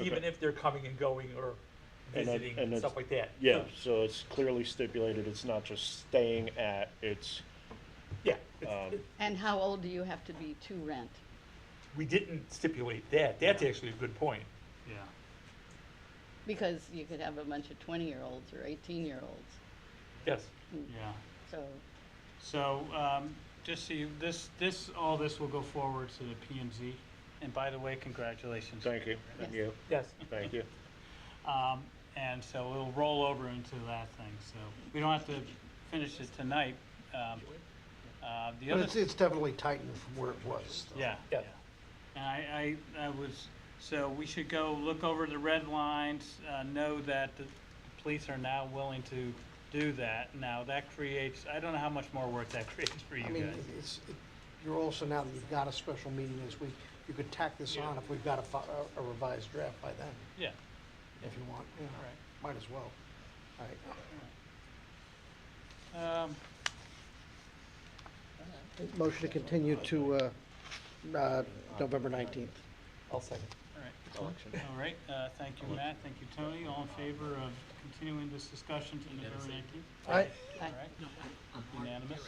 even if they're coming and going or And that- visiting and and stuff like that's- that. Yeah, so it's clearly stipulated, it's not just staying at, it's, Yeah, it's- Um, it- And how old do you have to be to rent? we didn't stipulate that, that's Yeah. actually a good point. Yeah, Because you could have a bunch of twenty-year-olds or eighteen-year-olds, Yes, yeah. so, So, um, just so you, this, this, all this will go forward to the PMZ. And by the way, congratulations. thank you, Yes. thank you, yes. thank you. Um, and so it'll roll over into that thing, so we don't have to finish it tonight. Um, uh, the But other, it's, it's definitely tightened from where it was. though. yeah, yeah. Yeah. And I, I, I was, so we should go look over the red lines, uh, know that the police are now willing to do that. Now, that creates, I don't know how much more work that creates for you I mean, guys. it's, it- you're also, now that you've got a special meeting this week, you could tack this on if we've got a fi- a revised draft by then, Yeah, if you want, you know, all right. might as well. All right. Um, Motion to continue to, uh, uh, November nineteenth. I'll second. all right. All right, uh, thank you, Matt, thank you, Tony, all in favor of continuing this discussion to November nineteenth? I, All right, unanimous.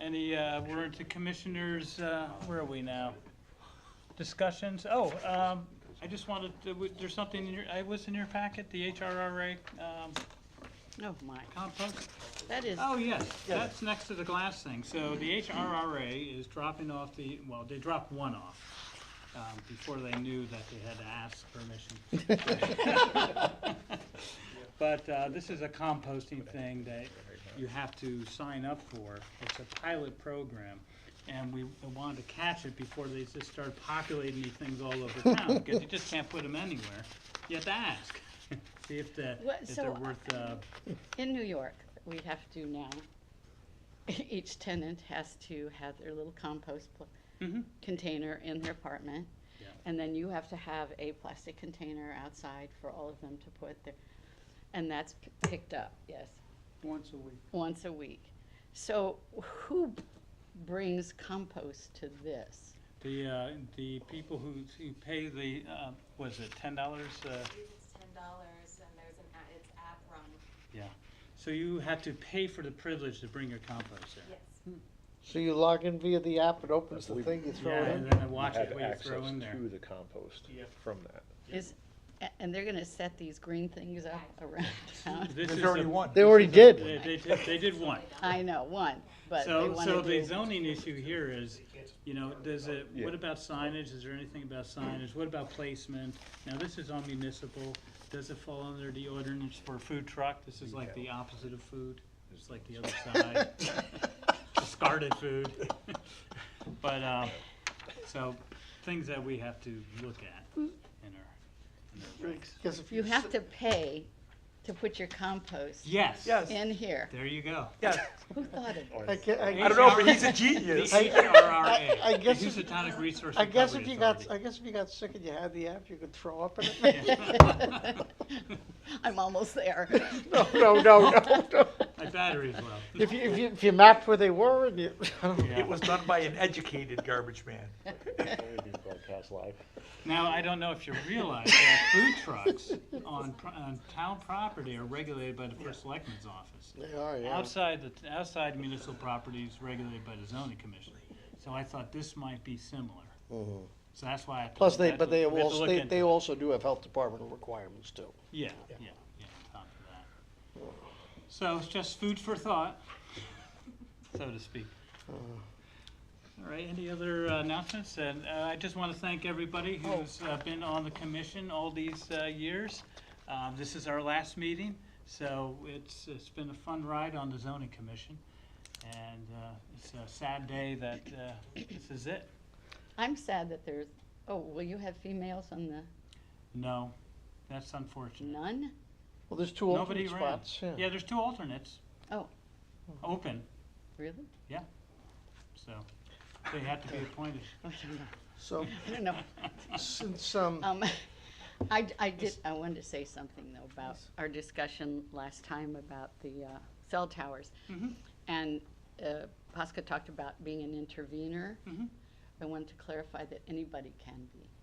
Any, uh, we're into commissioners, uh, where are we now? Discussions, oh, um, I just wanted, to- w- there's something in your, I was in your packet, the HRRA, um, oh my, compost? that is, Oh, yes, that's next to the glass thing. So the HRRA is dropping off the, well, they dropped one off um, before they knew that they had to ask permission. But uh, this is a composting thing that you have to sign up for. It's a pilot program. And we wanted to catch it before they just started populating these things all over town because you just can't put them anywhere. You have to ask, see if the, What- if so, they're worth, uh, in New York, we have to now, each tenant has to have their little compost pl- mhm. container in their apartment. Yeah. And then you have to have a plastic container outside for all of them to put their, and that's p- picked up, yes, Once a week. once a week. So who brings compost to this? The, uh, the people who, who pay the, uh, was it ten dollars, uh, It's ten dollars and there's an, a- it's app run, yeah. So you have to pay for the privilege to bring your compost there. yes. So you log in via the app, it opens the We- thing, you throw Yeah, it in? and then I watch Have it, what you throw access in there. to the compost Yeah. from that. Is, a- and they're gonna set these green things up around town? This is a- They already did. They, they did, they did one. I know, one, but they So, so wanna the do, zoning issue here is, you know, does it, what Yeah. about signage? Is there anything about signage? What about placement? Now, this is all municipal. Does it fall under the ordinance for food truck? This is like the opposite of food. It's like the other side. Discarded food. But, um, so things that we have to look at in our, in our regs. Because if you you, have to pay to put your compost Yes. Yes. in here. There you go. Yes, Who thought of Or- I gue- I I don't know, but he's a genius. The HRRA, I- I the guess if- Housatonic Resource I guess Recovery if you got, Authority. I guess if you got sick and you had the app, you could throw up in it. it? I'm almost there. No, no, no, no, no. My battery's low. If you, if you, if you mapped where they were and you, Yeah. It was done by an educated garbage man. That would be Broadcast live. Now, I don't know if you realize that food trucks on, pro- on town property are regulated by the first selectman's office. they are, yeah. Outside, the outside municipal property is regulated by the zoning commission. So I thought this might be similar. So that's why I. have to Mm-hmm. Plus, look- I they, have but to- they we have to also, look they, into they it. also do have health department requirements too. Yeah, yeah, yeah, on top of that. So it's just food for thought, so to speak. All right, any other uh, announcements? And uh, I just want to thank everybody who's uh, been on the commission all these uh, years. Um, This is our last meeting, so it's, it's been a fun ride on the zoning commission. And uh, it's a sad day that uh, this is it. I'm sad that there's, oh, will you have females on the, No, that's unfortunate. none? Well, there's two Nobody alternate ran. spots, yeah. Yeah, there's two alternates. Oh. Open. Really? So they have to be appointed. I don't know. So, I don't know. since, um, Um, I, I did, I wanted to say something though about our discussion last time about the uh, cell towers. Mhm. And uh, Pasca talked about being an intervener. Mhm. I wanted to clarify that anybody can be.